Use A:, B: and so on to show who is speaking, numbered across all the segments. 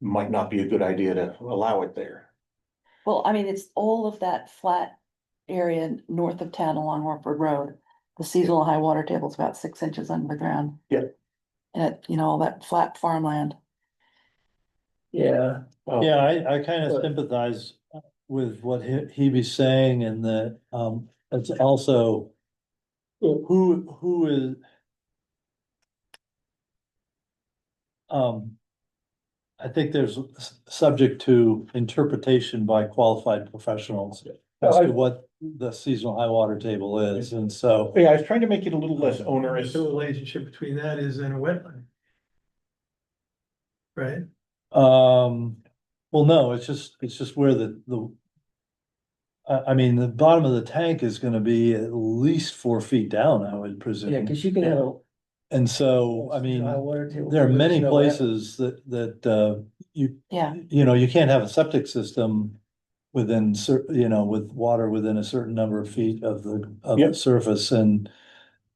A: might not be a good idea to allow it there.
B: Well, I mean, it's all of that flat area north of town along Orford Road. The seasonal high water table is about six inches underground.
A: Yep.
B: And, it- you know, all that flat farmland.
C: Yeah,
A: Oh,
D: Yeah, I, I kind
C: But-
D: of sympathize with what he, he be saying and that, um, it's also.
C: Well-
D: Who, who is? Um. I think there's s- subject to interpretation by qualified professionals as
A: I-
D: to what the seasonal high water table is, and so.
A: Yeah, I was trying to make it a little less onerous.
C: The relationship between that is in a wetland. Right?
D: Um, well, no, it's just, it's just where the, the. I, I mean, the bottom of the tank is gonna be at least four feet down, I would
C: Yeah,
D: presume.
C: cause you can have a.
D: And so, I mean, there are many places that, that, uh, you,
B: Yeah,
D: you know, you can't have a septic system. Within cer- you know, with water within a certain number of feet of the, of the
A: Yep.
D: surface and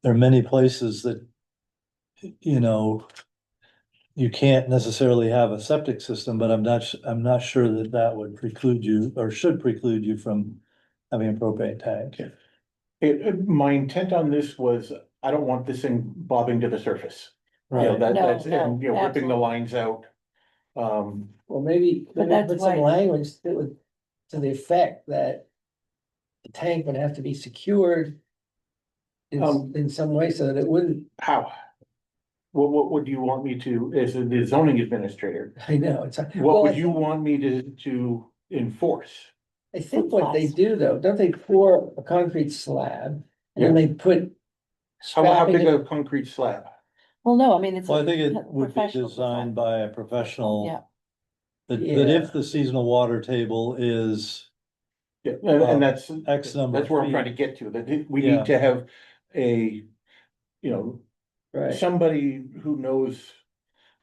D: there are many places that. You know. You can't necessarily have a septic system, but I'm not, s- I'm not sure that that would preclude you or should preclude you from having a propane tank.
A: Yeah. It, it- my intent on this was, I don't want this thing bobbing to the surface. You know,
D: Right.
A: that,
B: No,
A: that's, and,
B: no,
A: you know, ripping the
B: absolutely.
A: lines out. Um,
C: Well, maybe,
B: But
C: maybe
B: that's
C: put some
B: why-
C: language that would, to the effect that. The tank would have to be secured. In, s-
A: Um,
C: in some way so that it wouldn't,
A: how? What, what would you want me to, as the zoning administrator,
C: I know, it's. a-
A: what
C: well,
A: would you want me to, to enforce?
C: I think what they do though, don't they pour a concrete slab and then they put.
A: How, how
C: strapping
A: big
C: it-
A: a concrete slab?
B: well, no, I mean, it's.
D: Well, I
B: a
D: think it
B: professional
D: would be
B: design.
D: designed by a professional.
B: Yeah.
D: That, that
C: Yeah.
D: if the seasonal water table is
A: Yeah, and, and that's,
D: X number.
A: that's where I'm
D: of
A: trying to
D: feet,
A: get to, that it- we
D: Yeah.
A: need to have a, you know,
C: Right,
A: somebody who knows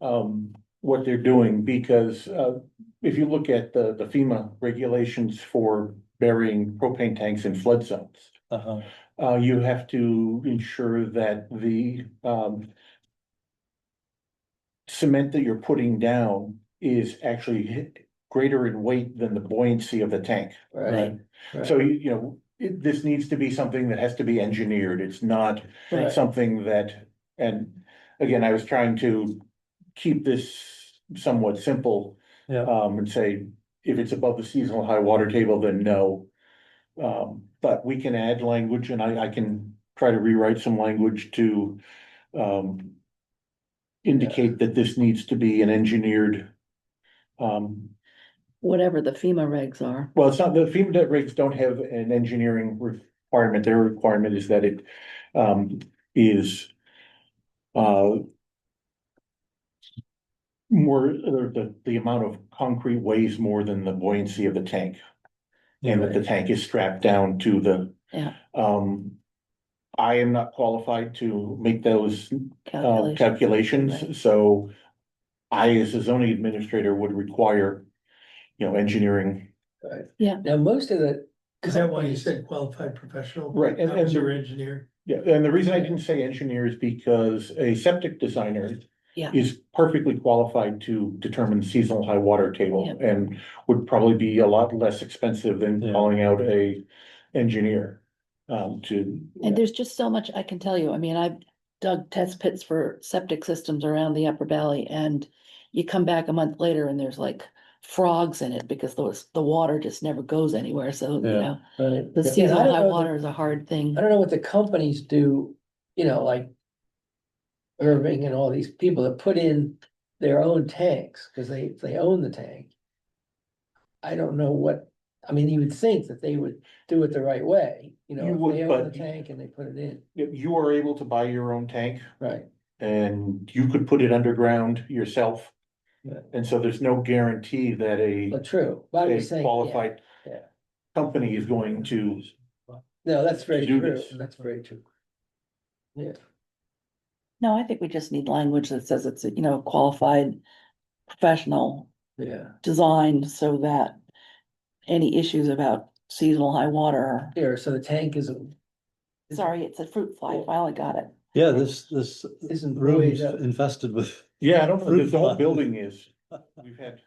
A: um what they're doing, because uh if you look at the the FEMA regulations for burying propane tanks in flood zones,
D: uh-huh.
A: uh you have to ensure that the um cement that you're putting down is actually hi- greater in weight than the buoyancy of the tank.
C: right. right.
A: So you you know, it- this needs to be something that has to be engineered. It's not
C: Right.
A: something that, and again, I was trying to keep this somewhat simple.
D: Yeah.
A: Um, and say, if it's above the seasonal high water table, then no. Um, but we can add language and I, I can try to rewrite some language to, um, indicate that this needs to be an engineered, um,
B: Whatever the FEMA regs are.
A: well, it's not, the FEMA regs don't have an engineering requirement. Their requirement is that it um is uh more, or the the amount of concrete weighs more than the buoyancy of the tank. And that the tank is strapped down to the.
B: Yeah.
A: Um, I am not qualified to make those uh,
D: Oh,
B: calculations. Right.
A: calculations, so I, as a zoning administrator, would require, you know, engineering
C: Now, most of the.
E: Is that why you said qualified professional?
A: Right, and-
E: That was
A: and-
E: your engineer.
A: Yeah, and the reason I didn't say engineer is because a septic designer.
B: Yeah.
A: Is perfectly qualified to determine seasonal high water table
B: Yeah.
A: and would probably be a lot less expensive than
D: Yeah.
A: calling out a engineer. Um, to,
B: And there's just so much I can tell you. I mean, I've dug test pits for septic systems around the upper valley and you come back a month later and there's like frogs in it because those, the water just never goes anywhere. So, you
D: Yeah.
B: know,
C: Right.
B: the
C: Yeah, I
B: seasonal
C: don't
B: high
C: know that-
B: water is a hard thing.
C: I don't know what the companies do, you know, like. Irving and all these people that put in their own tanks, cause they, they own the tank. I don't know what, I mean, you would think that they would do it the right way, you know,
A: You
C: if
A: would,
C: they own the
A: but-
C: tank and they put it in,
A: you are able to buy your own tank
C: right?
A: and you could put it underground yourself.
C: Yeah.
A: And so there's no guarantee that a,
C: But true, but I'm
A: a
C: just saying, yeah,
A: qualified.
C: yeah.
A: Company is going to,
C: no, that's very
A: do
C: true,
A: this.
C: that's very true. Yeah,
B: No, I think we just need language that says it's, you know, qualified professional
C: yeah,
B: designed so that any issues about seasonal high water. are-
C: here, so the tank isn't.
B: Sorry, it's a fruit fly. I Finally got it.
D: Yeah, this, this
C: Isn't
D: room is
C: buoyed up.
D: infested with.
A: yeah, I don't know,
D: Fruit
A: the whole
D: fly.
A: building is, we've had.